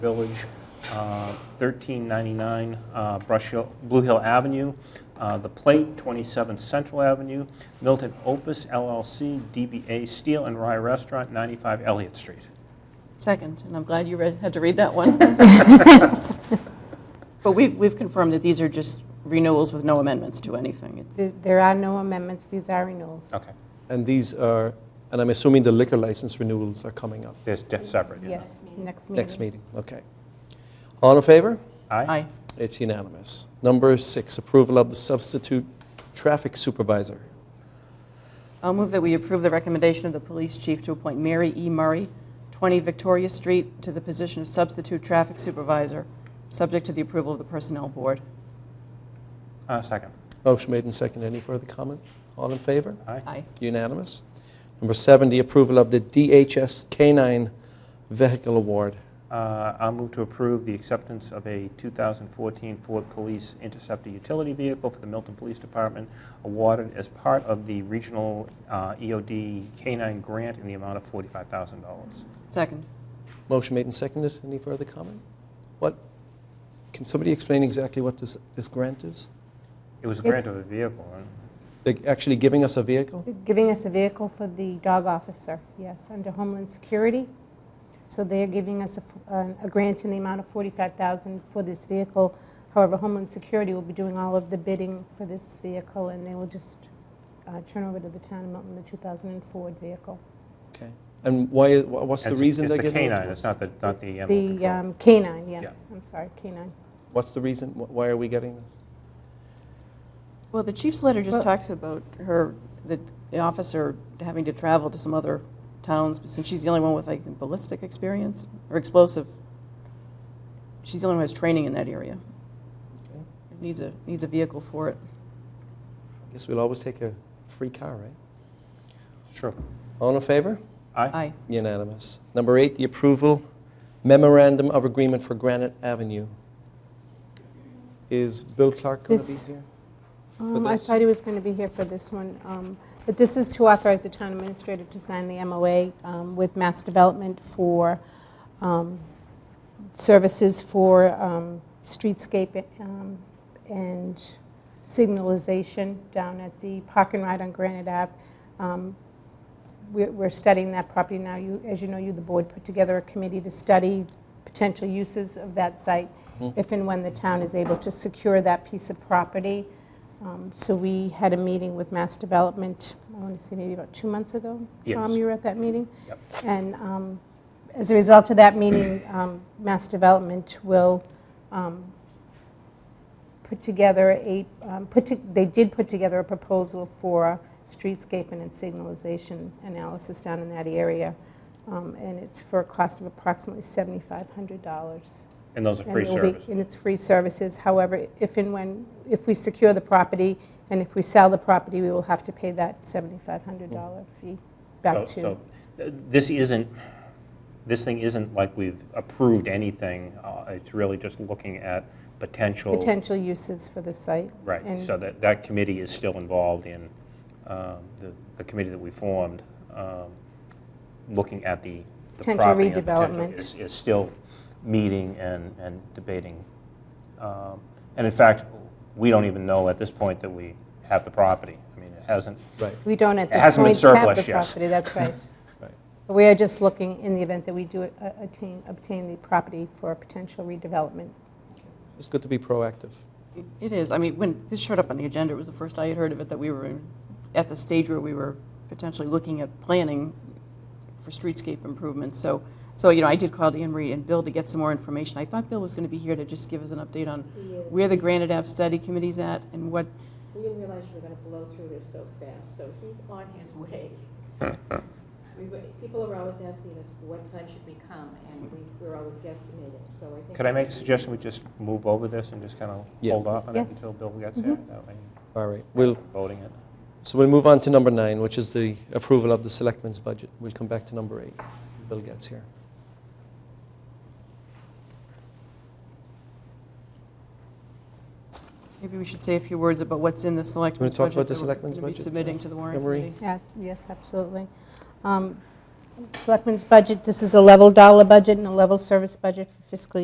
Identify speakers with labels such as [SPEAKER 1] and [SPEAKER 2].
[SPEAKER 1] Village, uh, 1399 uh, Brush Hill, Blue Hill Avenue, uh, The Plate, 27 Central Avenue, Milton Opus LLC, DBA Steel and Rye Restaurant, 95 Elliott Street.
[SPEAKER 2] Second, and I'm glad you read, had to read that one. But we've, we've confirmed that these are just renewals with no amendments to anything.
[SPEAKER 3] There- There are no amendments, these are renewals.
[SPEAKER 1] Okay,
[SPEAKER 4] And these are, and I'm assuming the liquor license renewals are coming up
[SPEAKER 1] there's de- separate. yeah.
[SPEAKER 3] Yes, next meeting.
[SPEAKER 4] next meeting, okay. All in favor?
[SPEAKER 1] Aye?
[SPEAKER 2] Aye.
[SPEAKER 4] It's unanimous. Number six, approval of the substitute traffic supervisor.
[SPEAKER 2] I'll move that we approve the recommendation of the police chief to appoint Mary E. Murray, 20 Victoria Street, to the position of substitute traffic supervisor, subject to the approval of the personnel board.
[SPEAKER 1] Uh, Second.
[SPEAKER 4] Motion made and seconded. Any further comment? All in favor?
[SPEAKER 1] Aye?
[SPEAKER 2] Aye.
[SPEAKER 4] Unanimous. Number seven, the approval of the DHS K-9 vehicle award.
[SPEAKER 1] Uh, I'll move to approve the acceptance of a 2014 Ford Police Interceptor utility vehicle for the Milton Police Department awarded as part of the regional uh, EOD K-9 grant in the amount of $45,000.
[SPEAKER 2] Second.
[SPEAKER 4] Motion made and seconded. Any further comment? What, can somebody explain exactly what this, this grant is?
[SPEAKER 1] It was a grant
[SPEAKER 3] It's-
[SPEAKER 1] of a vehicle, and
[SPEAKER 4] They're actually giving us a vehicle?
[SPEAKER 3] Giving us a vehicle for the dog officer, yes, under Homeland Security. So they're giving us a f- an- a grant in the amount of 45000 for this vehicle. However, Homeland Security will be doing all of the bidding for this vehicle, and they will just uh, turn over to the town of Milton the 2004 vehicle.
[SPEAKER 4] Okay. And why, wha- what's the
[SPEAKER 1] it's-
[SPEAKER 4] reason they're
[SPEAKER 1] It's the
[SPEAKER 4] giving it to
[SPEAKER 1] K-9,
[SPEAKER 4] us?
[SPEAKER 1] it's not the, not the animal
[SPEAKER 3] The
[SPEAKER 1] control.
[SPEAKER 3] um, canine,
[SPEAKER 1] Yeah.
[SPEAKER 3] yes, I'm sorry, canine.
[SPEAKER 4] What's the reason, wh- why are we getting this?
[SPEAKER 2] Well, the chief's letter just
[SPEAKER 3] Well-
[SPEAKER 2] talks about her, the the officer having to travel to some other towns, but since she's the only one with, I think, ballistic experience, or explosive, she's the only one who has training in that area.
[SPEAKER 4] Okay.
[SPEAKER 2] Needs a, needs a vehicle for it.
[SPEAKER 4] I guess we'll always take a free car, right?
[SPEAKER 1] Sure.
[SPEAKER 4] All in favor?
[SPEAKER 1] Aye?
[SPEAKER 2] Aye.
[SPEAKER 4] Unanimous. Number eight, the approval memorandum of agreement for Granite Avenue. Is Bill Clark going to be
[SPEAKER 3] This-
[SPEAKER 4] here?
[SPEAKER 3] Um, I
[SPEAKER 4] this?
[SPEAKER 3] thought he was going to be here for this one, um, but this is to authorize the town administrator to sign the MOA um, with Mass Development for um, services for um, streetscape um, and signalization down at the park and ride on Granite Ave. Um, We're we're studying that property now. You, As you know, you, the board, put together a committee to study potential uses of that site
[SPEAKER 1] Mm-hmm.
[SPEAKER 3] if and when the town is able to secure that piece of property. Um, So we had a meeting with Mass Development, I want to say maybe about two months ago. Tom,
[SPEAKER 1] Yes.
[SPEAKER 3] you were at that meeting?
[SPEAKER 1] Yep.
[SPEAKER 3] And um, as a result of that meeting, um, Mass Development will um, put together a, um, put to- they did put together a proposal for streetscape and signalization analysis down in that area. Um, And it's for a cost of approximately $7,500.
[SPEAKER 1] And those are
[SPEAKER 3] And
[SPEAKER 1] free
[SPEAKER 3] it will be-
[SPEAKER 1] service.
[SPEAKER 3] And it's free services. However, if and when, if we secure the property and if we sell the property, we will have to pay that $7,500 fee
[SPEAKER 1] So-
[SPEAKER 3] back to.
[SPEAKER 1] Mm. So th- this isn't, this thing isn't like we've approved anything, uh, it's really just looking at potential.
[SPEAKER 3] potential uses for the site.
[SPEAKER 1] Right,
[SPEAKER 3] And-
[SPEAKER 1] so that, that committee is still involved in, um, the, the committee that we formed, um, looking at the. the
[SPEAKER 3] Potential
[SPEAKER 1] property and potential
[SPEAKER 3] redevelopment.
[SPEAKER 1] Is, is still meeting and, and debating. Um, And in fact, we don't even know at this point that we have the property. I mean, it hasn't,
[SPEAKER 4] Right.
[SPEAKER 3] We don't at
[SPEAKER 1] It
[SPEAKER 3] this
[SPEAKER 1] hasn't been
[SPEAKER 3] point have the
[SPEAKER 1] surplus yet.
[SPEAKER 3] property, that's right.
[SPEAKER 4] Right.
[SPEAKER 3] But We are just looking, in the event that we do a- attain, obtain the property for potential redevelopment.
[SPEAKER 4] It's good to be proactive.
[SPEAKER 2] It is. I mean, when this showed up on the agenda, it was the first I had heard of it, that we were in- at the stage where we were potentially looking at planning for streetscape improvements. So, so, you know, I did call Anne Marie and Bill to get some more information. I thought Bill was going to be here to just give us an update on where the Granite Ave Study Committee's at and what,
[SPEAKER 5] We didn't realize you were gonna blow through this so fast, so he's on his way. We, were- people are always asking us, what time should we come, and we, we're always guesstimating, so I think.
[SPEAKER 1] could I make a suggestion, we just move over this and just kind of
[SPEAKER 4] Yeah.
[SPEAKER 1] hold off on it
[SPEAKER 3] Yes. Mm-hmm.
[SPEAKER 1] until Bill gets here? That way,
[SPEAKER 4] All right. We'll,
[SPEAKER 1] voting it.
[SPEAKER 4] so we'll move on to number nine, which is the approval of the selectmen's budget. We'll come back to number eight when Bill gets here.
[SPEAKER 2] maybe we should say a few words about what's in the selectmen's budget.
[SPEAKER 4] talk about the
[SPEAKER 2] that we're
[SPEAKER 4] selectmen's
[SPEAKER 2] gonna be
[SPEAKER 4] budget,
[SPEAKER 2] submitting to the warrant
[SPEAKER 4] Anne Marie?
[SPEAKER 2] committee.
[SPEAKER 3] Yes, yes, absolutely. Um, Selectmen's budget, this is a level dollar budget and a level service budget for fiscal